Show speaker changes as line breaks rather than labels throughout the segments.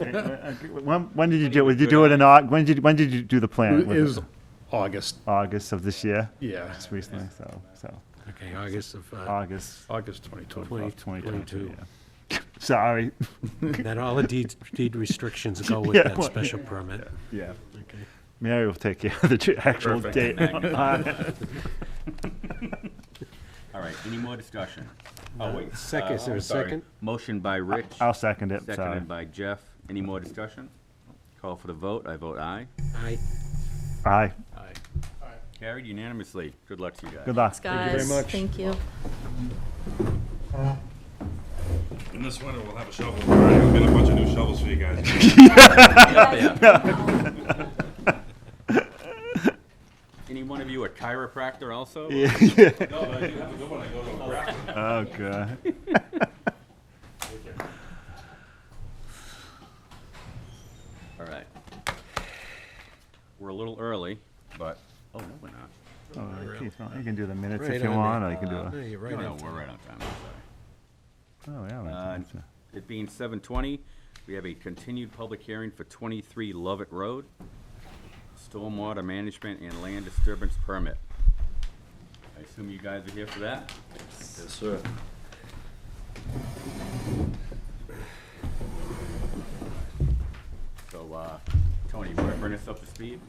When, when did you do it? Did you do it in Aug, when did, when did you do the plan?
It
Was it
was August,
August of this year?
yeah,
Just recently, so, so,
Okay, August of, uh,
August
August 2020.
of twenty twenty-two,
22.
yeah. Sorry,
that all the deed, deed restrictions go with
Yeah,
that
well,
special permit.
yeah.
Okay.
Mary will take care of the tr- actual
Perfect.
date.
All right, any more discussion? Oh, wait.
Second,
uh,
is there a
I'm sorry.
second?
Motion by Rich,
I'll second it, sorry.
seconded by Jeff. Any more discussion? Call for the vote. I vote aye.
Aye.
Aye,
Carried unanimously. Good luck to you guys.
good luck.
Guys,
much.
thank you.
And this winter we'll have a shovel. We'll get a bunch of new shovels for you guys.
Any one of you a chiropractor also?
No, but I do have a good one. I go to a rack.
Oh, God.
All right. We're a little early, but, oh, no, we're not.
Oh, geez, well, You can do the minutes
Right
if you
on
want,
it.
or you can do a,
No, you're right
No, no,
on
we're
time.
right on time. I'm sorry.
oh, yeah.
Uh,
right, that's
It being seven twenty, we have a continued public hearing for twenty-three Lovett Road. Stormwater management and land disturbance permit. I assume you guys are here for that?
Yes, sir.
So, uh, Tony, you wanna bring us up to speed?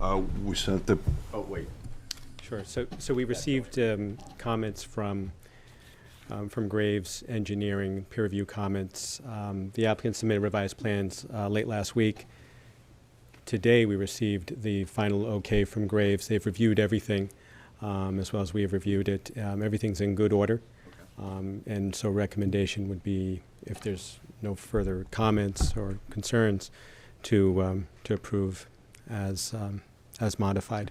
Uh, we sent the,
Oh, wait.
Sure. So, so we received um, comments from, um, from Graves Engineering, peer review comments. Um, The applicant submitted revised plans uh, late last week. Today, we received the final okay from Graves. They've reviewed everything, um, as well as we have reviewed it. Um, Everything's in good order. Um, And so recommendation would be, if there's no further comments or concerns, to, um, to approve as, um, as modified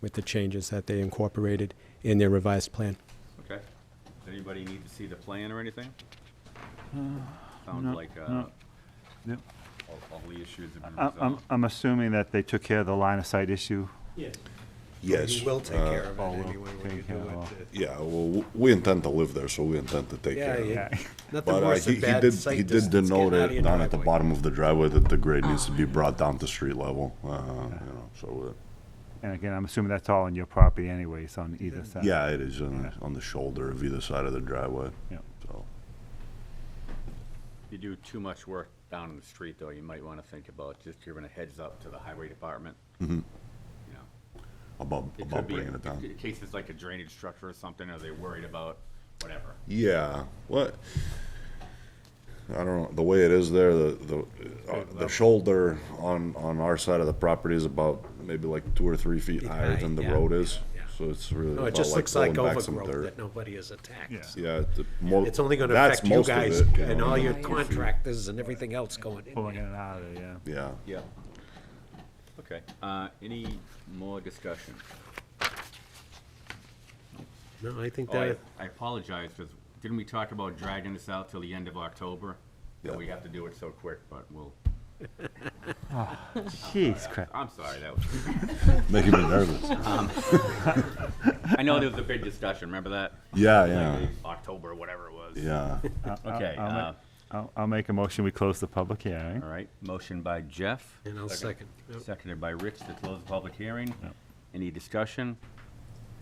with the changes that they incorporated in their revised plan.
Okay. Does anybody need to see the plan or anything? Sounds like, uh,
Uh, no. Yep.
all, all the issues have been
I- I'm,
resolved.
I'm assuming that they took care of the line of sight issue.
yes.
You will take
uh,
care of
oh, we'll
it anyway when
take
you
care
do
of
it.
Yeah, well, w- we intend to live there, so we intend to take care of it.
Yeah,
Okay.
nothing
But uh,
worse
he
than
he
bad
did,
sight
he did
distance
denote
getting out of
it
your
down at the
driveway. Ah.
bottom of the driveway that the grade needs to be brought down to street level, uh, you know, so, uh,
And again, I'm assuming that's all on your property anyways, on either
uh,
side.
yeah, it is on, the- on the shoulder of either side of the driveway,
Yeah.
so.
If you do too much work down in the street, though, you might wanna think about just giving a heads up to the highway department. You know, It
About,
could
Mm-hmm. about
be,
bringing it down.
in case it's like a drainage structure or something, are they worried about whatever?
Yeah. What? I don't know. The way it is there, the the uh, the shoulder on on our side of the property is about maybe like two or three feet higher
high,
than the
yeah,
road is.
yeah.
So it's really
No, it
about
just
like
looks like
pulling back some
overgrowth
dirt.
that nobody has attacked.
Yeah.
Yeah. It's, the mo-
It's only gonna
that's
affect you
most of
guys
it, you
and
know,
all
and
your
then-
contractors and everything else going in.
Pulling in and out of there, yeah.
Yeah.
Yeah. Okay, uh, any more discussion?
No, I think
Oh, I
that,
I apologize, because didn't we talk about dragging this out till the end of October? That
Yeah.
we have to do it so quick, but we'll,
Jeez, crap.
I'm sorry, that was,
Making me nervous.
I know there was a big discussion, remember that?
Yeah.
Like,
Yeah.
October, whatever it was.
Yeah.
Okay,
I'll
uh,
make- I'll, I'll make a motion, we close the public hearing.
all right, motion by Jeff,
and I'll second. Yep.
seconded by Rich to close the public hearing. Any discussion?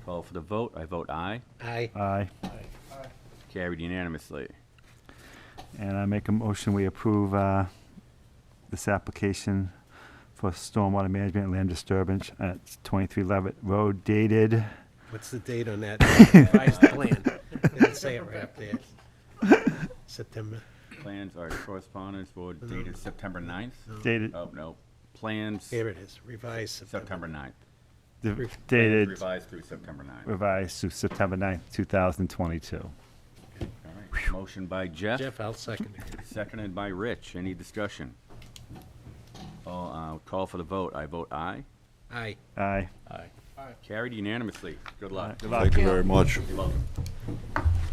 Call for the vote, I vote aye,
Aye.
Aye.
carried unanimously.
And I make a motion, we approve uh, this application for stormwater management and land disturbance at 23 Levitt Road dated,
What's the date on that revised plan? Didn't say it right up there. September.
Plans, all right, correspondence, board dated September 9th?
dated,
Oh, no, plans,
Here it is, revised September.
September 9th.
the-
Plans
dated,
Revised through September 9th.
revised to September 9th, 2022.
All right. Motion by Jeff,
Jeff, I'll second it.
seconded by Rich. Any discussion? All, uh, call for the vote. I vote aye.
Aye.
Aye.
Carried unanimously. Good luck.
Good luck.
Thank you very much.
You're welcome.